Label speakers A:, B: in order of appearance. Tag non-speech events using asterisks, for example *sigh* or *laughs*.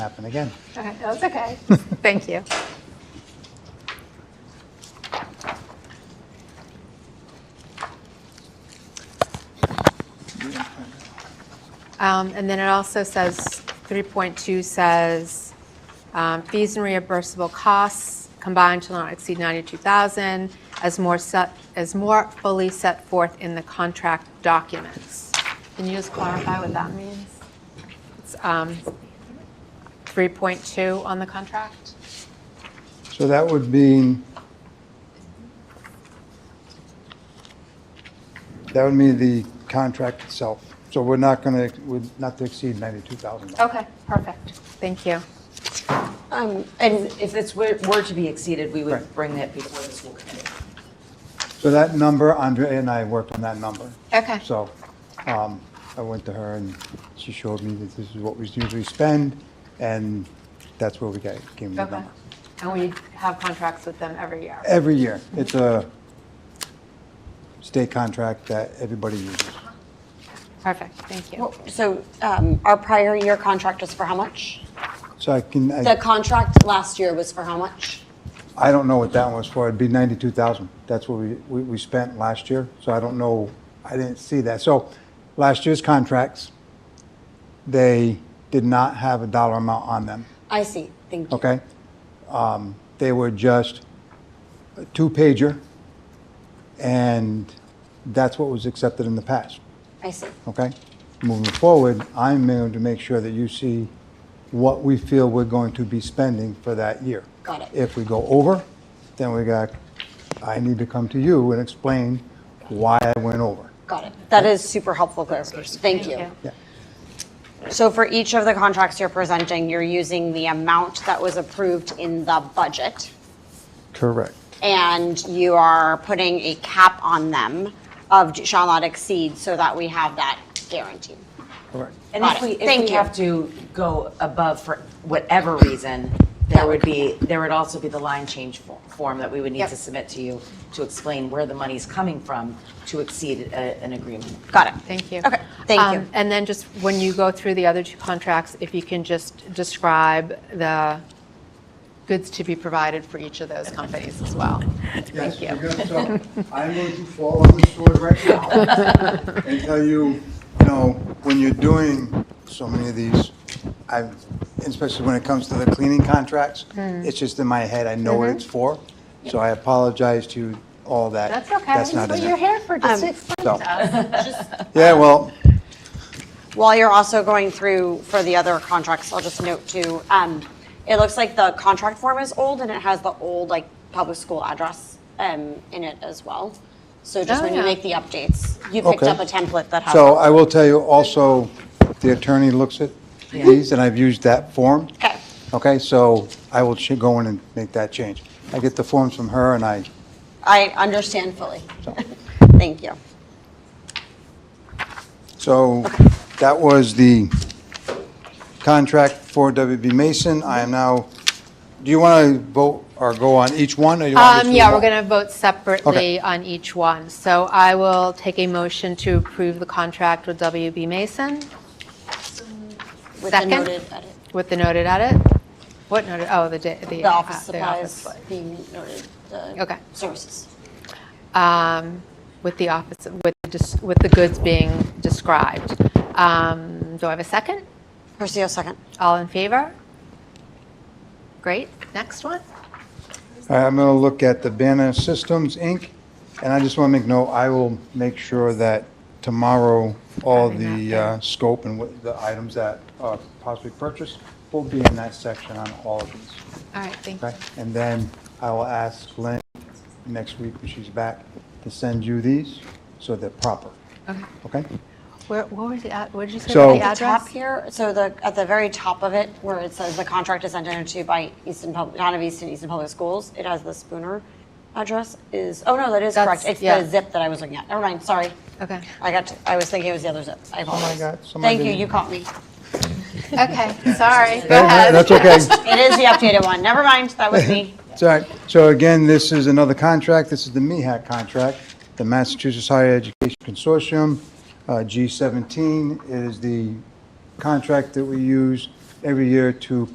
A: happen again.
B: All right, That's okay. *laughs* Thank you. Um, And then it also says, 3.2 says, um, fees and reimbursable costs combined shall not exceed 92,000 as more set, as more fully set forth in the contract documents. Can you just clarify what that means? It's um, 3.2 on the contract?
A: So that would mean, that would mean the contract itself. So we're not going to, would not to exceed $92,000.
B: Okay, perfect. Thank you.
C: Um, And if this were were to be exceeded, we would bring that before the school committee.
A: So that number, Andrea and I worked on that number.
B: Okay.
A: So um, I went to her and she showed me that this is what we usually spend and that's where we got, came with the
B: Okay.
A: number.
B: And we have contracts with them every year.
A: Every year. It's a state contract that everybody uses.
B: Perfect, thank you.
D: Well, So um, our prior year contract was for how much?
A: So I can, I-
D: The contract last year was for how much?
A: I don't know what that one was for. It'd be ninety-two thousand. That's what we, we, we spent last year, so I don't know, I didn't see that. So, last year's contracts, they did not have a dollar amount on them,
D: I see, thank you.
A: okay? Um, they were just a two-pager, and that's what was accepted in the past,
D: I see.
A: okay? Moving forward, I'm going to make sure that you see what we feel we're going to be spending for that year.
D: Got it.
A: If we go over, then we got, I need to come to you and explain why I went over.
D: Got it. That is super helpful clarification. Thank you.
B: you.
A: Yeah.
D: So for each of the contracts you're presenting, you're using the amount that was approved in the budget,
A: Correct.
D: and you are putting a cap on them of shall not exceed, so that we have that guarantee.
A: Correct.
C: And
D: Got
C: if
D: it.
C: we, if
D: Thank
C: we
D: you.
C: have to go above for whatever reason, there would be, there would also be the line change fo- form that we would need
B: Yep.
C: to submit to you to explain where the money's coming from to exceed a- an agreement.
D: Got it.
B: Thank you.
D: Okay, thank you.
B: Um, And then just when you go through the other two contracts, if you can just describe the goods to be provided for each of those companies as well.
A: Yes,
B: Thank you.
A: we're
B: *laughs*
A: gonna- so I'm going to fall on the sword right now
B: *laughs*
A: and tell you, you know, when you're doing so many of these, I, especially when it comes to the cleaning contracts,
B: Mm.
A: it's just in my head, I know what
B: Mm-hmm.
A: it's for. So I apologize to you all that.
B: That's okay.
A: not in there.
B: here for, just to explain
A: so- *laughs* Yeah, well,
D: While you're also going through for the other contracts, I'll just note too, um, it looks like the contract form is old and it has the old like public school address, um, in it as well. So just
B: Oh,
D: when you
B: yeah.
D: make the updates, you picked
A: Okay.
D: up a template that has.
A: so I will tell you also, the attorney looks at these, and I've used that form.
D: Okay,
A: Okay, so I will ch- go in and make that change. I get the forms from her, and I
D: I understand fully.
A: So-
D: *laughs* Thank you.
A: So that was the contract for WB Mason. I am now, do you want to vote or go on each one? or you want to
B: Um,
A: do
B: yeah,
A: one?
B: we're going to vote separately on each one. So I will take a motion to approve the contract with WB Mason.
D: With the
B: Second.
D: noted edit,
B: With the noted edit? What noted, oh, the, da- the.
D: the office
B: uh, the
D: supplies
B: office
D: being noted,
B: Okay.
D: the services.
B: um, With the office, with, the dis- with the goods being described. Um, Do I have a second?
D: Percy, a second.
B: All in favor? Great, next one?
A: All right, I'm going to look at the Banner Systems, Inc., and I just want to make note, I will make sure that tomorrow, all
B: Having
A: the
B: that
A: uh, scope and what the items that are possibly purchased will be in that section on all of these.
B: All right, thank you.
A: Okay, and then I will ask Lynn next week when she's back to send you these so they're proper.
B: Okay.
A: Okay?
B: Where, what was the, ad- what did you say
A: So-
B: about the
D: the top
B: address?
D: here, so the, at the very top of it, where it says the contract is entered into by Easton Public, Town of Easton, Easton Public Schools, it has the Spooner address is, oh no, that is correct.
B: That's-
D: It's
B: yeah.
D: the zip that I was looking at. Never mind, sorry.
B: Okay,
D: I got, I was thinking it was the other zip. I apologize.
A: Oh God, somebody
D: Thank you,
A: didn't-
D: you caught me.
B: okay, sorry, go
A: No, no,
B: ahead.
A: That's
B: *laughs*
A: okay.
D: It is the updated one. Never mind, that
A: *laughs*
D: was me.
A: It's all right. So again, this is another contract. This is the E MEHAC contract, the Massachusetts Higher Education Consortium, uh, G17. It is the contract that we use every year to